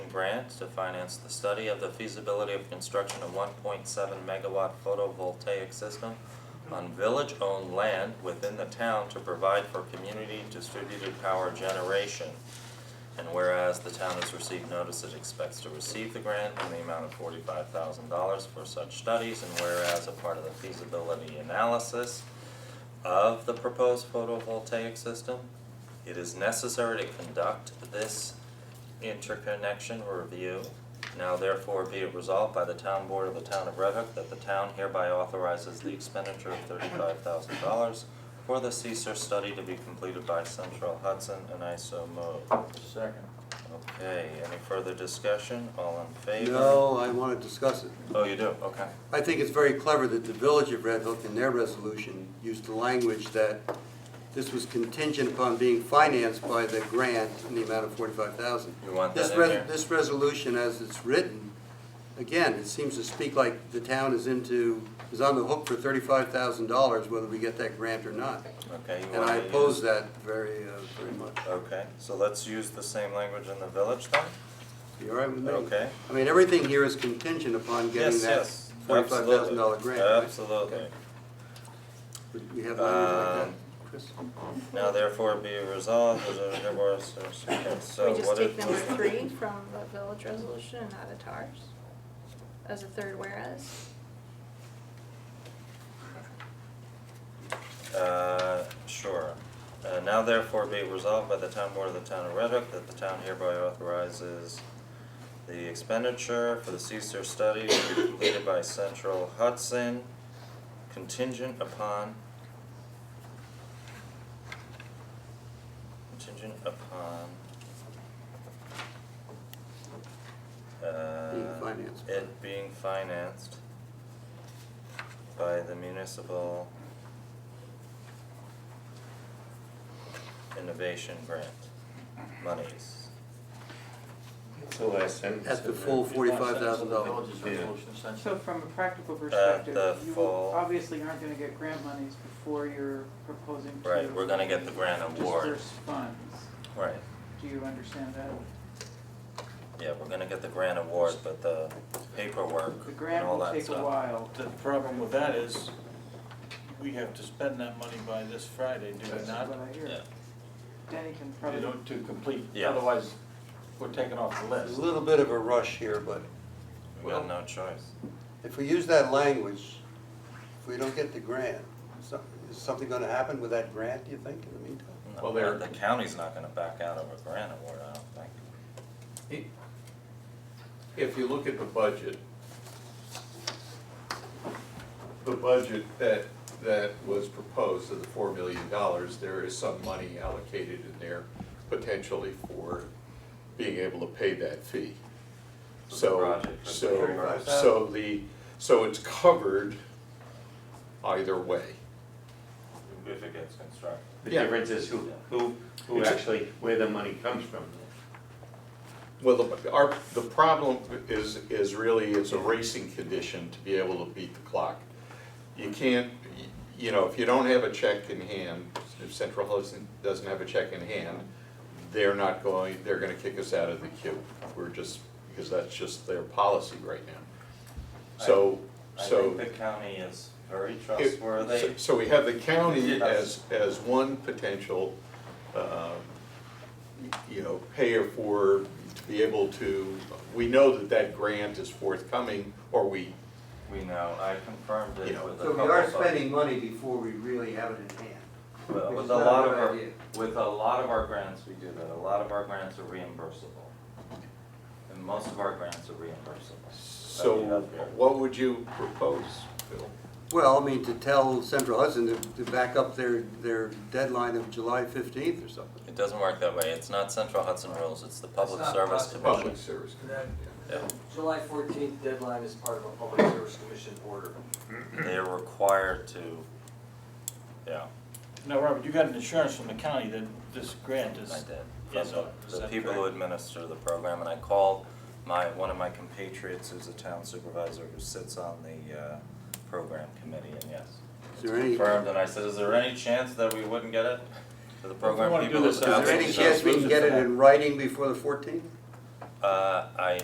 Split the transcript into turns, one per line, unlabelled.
grant to finance the study of the feasibility of construction of one point seven megawatt photovoltaic system on village-owned land within the town to provide for community distributed power generation. And whereas the town has received notice it expects to receive the grant in the amount of forty-five thousand dollars for such studies, and whereas a part of the feasibility analysis of the proposed photovoltaic system, it is necessary to conduct this interconnection review. Now therefore be it resolved by the town board of the town of Red Hook that the town hereby authorizes the expenditure of thirty-five thousand dollars for the CSER study to be completed by Central Hudson, and I so move.
Second.
Okay, any further discussion? All in favor?
No, I want to discuss it.
Oh, you do, okay.
I think it's very clever that the village of Red Hook in their resolution used the language that this was contingent upon being financed by the grant in the amount of forty-five thousand.
You want that
This
in
res-
there?
This resolution, as it's written, again, it seems to speak like the town is into, is on the hook for thirty-five thousand dollars whether we get that grant or not.
Okay, you
And
want to
I
use-
oppose that very, uh, very much.
Okay, so let's use the same language in the village then?
You all right with me?
Okay.
I mean, everything here is contingent upon getting
Yes,
that
yes,
forty-five thousand dollar grant, right?
Absolutely.
Would We have language like
Um,
that, Chris?
Now therefore be resolved, that there- there was- there's- okay, so
We just
what
take
did-
number three from the village resolution and add it to ours as a third whereas.
Uh, sure. Uh, now therefore be resolved by the town board of the town of Red Hook that the town hereby authorizes the expenditure for the CSER study to be completed by Central Hudson contingent upon contingent upon uh,
Being financed by-
It being financed by the municipal innovation grant monies.
That's the last sentence.
At the
isn't it?
full forty-five thousand dollars.
Village's
Yeah.
resolution, essentially.
So from a practical
Uh, the
perspective, you
fall-
obviously aren't gonna get grant monies before you're proposing to.
Right, we're gonna get the grant award.
Disperse funds,
Right,
do you understand that?
yeah, we're gonna get the grant award, but the paperwork
The
and
grant
all
will
that
take a
stuff.
while.
The problem with that is, we have to spend that money by this Friday, do we
That's
not?
what I hear.
Yeah,
Danny can
You
probably,
know, to complete,
Yeah.
otherwise we're taken off the
There's
list.
a little bit of a rush here, but
we got no choice.
if we use that language, if we don't get the grant, so- is something gonna happen with that grant, do you think, in the meantime?
No,
Well, there-
The county's not gonna back out of a grant award, I don't think.
If you look at the budget, the budget that, that was proposed of the four million dollars, there is some money allocated in there potentially for being able to pay that fee.
the
So,
project for
so,
35,000.
so the, so it's covered either way.
If it gets constructed.
The
Yeah.
difference is who, who, who actually, where the money comes from.
Well, the, our, the problem is, is really, it's a racing condition to be able to beat the clock. You can't, y- you know, if you don't have a check in hand, if Central Hudson doesn't have a check in hand, they're not going, they're gonna kick us out of the queue. We're just, because that's just their policy right now. So,
I
so.
think the county is very
If-
trustworthy.
so- So we have the county
Yes.
as, as one potential, um, you know, payer for, to be able to, we know that that grant is forthcoming, or we,
We know, I confirmed it
You know.
with a
So we
couple
are
of-
spending money before we really have it in hand.
Well,
Which
With
is
a
not a
lot
good
of our,
idea.
with a lot of our grants, we do that, a lot of our grants are reimbursable. And most of our grants are reimbursable.
so what would you propose, Bill?
Well, I mean, to tell Central Hudson to, to back up their, their deadline of July fifteenth or something.
It doesn't work that way, it's not Central Hudson rules, it's the Public
not
Service
possible.
Commission.
Public service.
That
Yeah.
July fourteenth deadline is part of a public service commission order.
They're required to, yeah,
Now, Robert, you got an insurance from the county that this grant is.
I did.
Yes,
From
sir. Is
The the
that
people who
correct?
administer the program, and I called my, one of my compatriots who's a town supervisor who sits on the, uh, program committee, and yes.
Is there any, is
Confirmed, and I said, is there any chance that we wouldn't get it? For the
wanna
program
do
people.
this,
who
uh,
sell
there
it,
any
so-
chance we can get it in writing before the fourteenth?
Uh, I